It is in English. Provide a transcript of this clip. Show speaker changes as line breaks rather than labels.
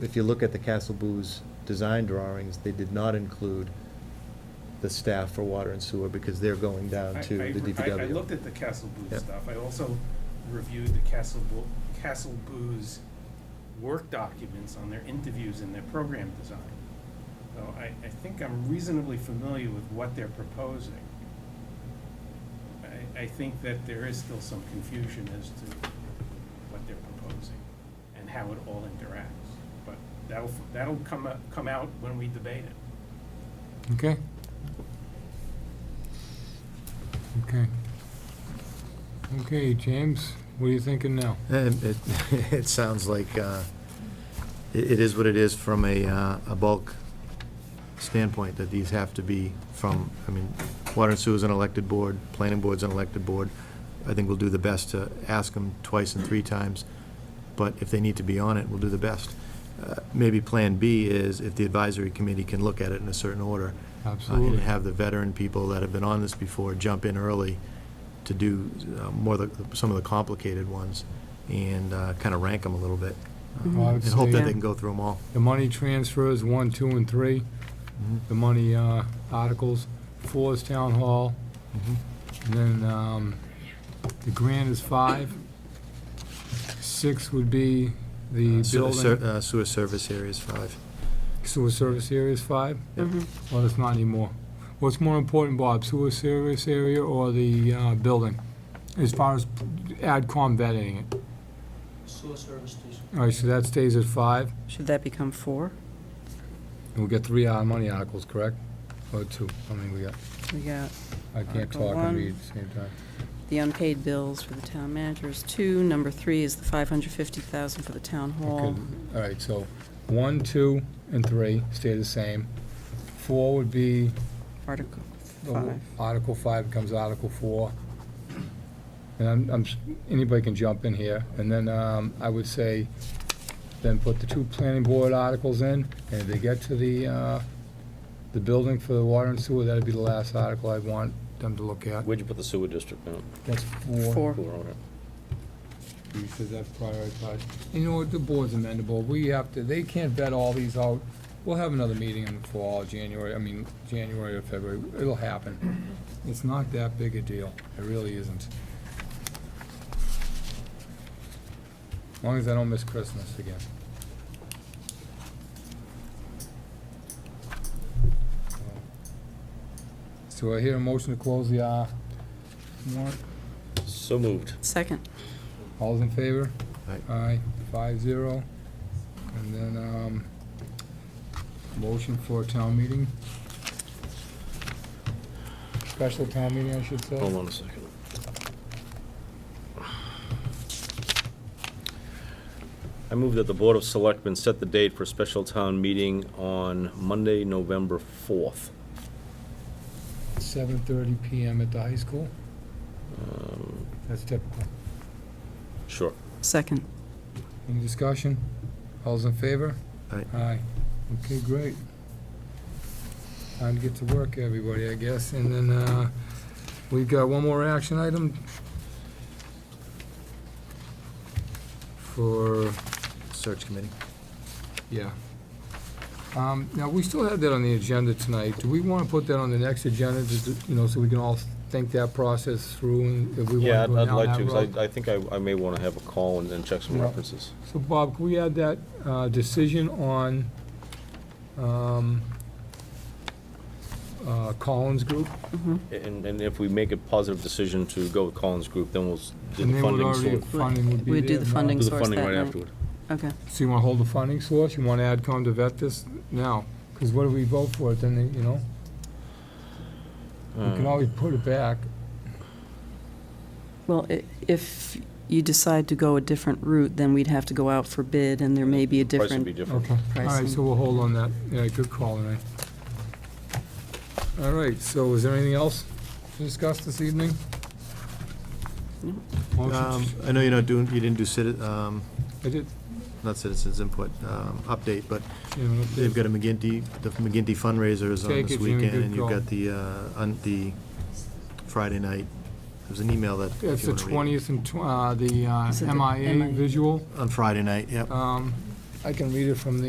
If you look at the Castle Booze design drawings, they did not include the staff for water and sewer because they're going down
I-
to
I-
the
I, I
DPW.
looked at the Castle
Yeah.
Booze stuff. I also reviewed the Castle Boo, Castle Booze work documents on their interviews and their program design. So I, I think I'm reasonably familiar with what they're proposing. I, I think that there is still some confusion as to what they're proposing and how it all interacts. But that'll, that'll come, up- come out when we debate it.
Okay. Okay. Okay, James, what are you thinking now?
And It, it sounds like uh, it it is what it is from a, uh, a bulk standpoint, that these have to be from, I mean, Water and Sewer's an elected board, Planning Board's an elected board. I think we'll do the best to ask them twice and three times, but if they need to be on it, we'll do the best. Uh, Maybe Plan B is if the advisory committee can look at it in a certain order. uh, And
Absolutely.
have the veteran people that have been on this before jump in early to do uh, more of the, some of the complicated ones and kind of rank them a little bit. uh,
Well, I would
And hope that
say-
they can go through them all.
The money transfers, one, two, and three. The money uh, articles, four is town hall,
Uh,
and then um, the grant is five. Six would be the
Sewer ser-
building,
uh, Sewer service areas five.
sewer service area is five?
Yep.
Mm-hmm.
Well, it's not anymore. What's more important, Bob, sewer service area or the uh, building? As far as AdCom vetting it?
Sewer service station.
All right, so that stays at five,
Should that become four?
and we'll get three our money articles, correct? Or two, I mean, we got,
We got
I can't
Article
talk
one.
and read at the same time.
the unpaid bills for the town manager is two. Number three is the 550,000 for the town hall.
Okay, All right, so one, two, and three stay the same. Four would be,
Article
the
five.
Article five becomes Article four. And I'm, I'm, s- anybody can jump in here, and then, um, I would say, then put the two planning board articles in, and if they get to the, uh, the building for the water and sewer, that'd be the last article I'd want them to look at.
Where'd you put the sewer district down?
That's
Four.
Four on it.
Because that's prioritized. You know what, the board's amendable, we have to, they can't vet all these out. We'll have another meeting in the fall, January, I mean, January or February, it'll happen. It's not that big a deal, it really isn't. As long as I don't miss Christmas again. So I hear a motion to close the, uh, warrant.
So moved.
Second,
All's in favor?
Aye.
Aye, five zero. And then, um, motion for a town meeting. Special town meeting, I should
Hold
say.
on a second. I move that the Board of Selectmen set the date for a special town meeting on Monday, November 4th.
Seven thirty PM at the high school.
Um,
That's typical.
Sure.
second.
Any discussion? All's in favor?
Aye.
Aye. Okay, great. Time to get to work, everybody, I guess. And then, uh, we've got one more action item for
Search committee.
Yeah. Um, Now, we still have that on the agenda tonight. Do we want to put that on the next agenda, just, to- you know, so we can all think that process through and if we want
Yeah, I'd
to go
I'd
down
like
that
to,
road?
'cause I I think I I may want to have a call and and check some
Yeah.
references.
So Bob, can we add that uh, decision on um, uh, Collins Group?
Mm-hmm.
And and if we make a positive decision to go with Collins Group, then we'll s- do
And
the
they would
funding
already,
source.
funding would be
We'd do
there
the
now.
funding.
Do the
source
funding
that
right
night.
afterward.
Okay,
So you want to hold the funding source? You want to add AdCom to vet this now? Because what if we vote for it, then, they- you know? We can
Um,
always put it back.
well, i- if you decide to go a different route, then we'd have to go out for bid, and there may be a
Price would be
different,
different.
Okay, all right,
Pricing.
so we'll hold on that. Yeah, good call, Renee. All right, so is there anything else to discuss this evening?
No.
Motion-
Um, I know you're not doing, you didn't do citi, um,
I did,
not citizens input, um, update, but
you know, if
they've
there's-
got a McGinty, the McGinty fundraiser is on
Take it,
this
Jimmy,
weekend.
good
And you've
call.
got the, uh, on the Friday night, there's an email that. if
it's
you
the
wanna read it.
twentieth and tw- uh, the uh,
Is it the
MIA
MIA?
visual.
On Friday night, yep.
Um, I can read it from the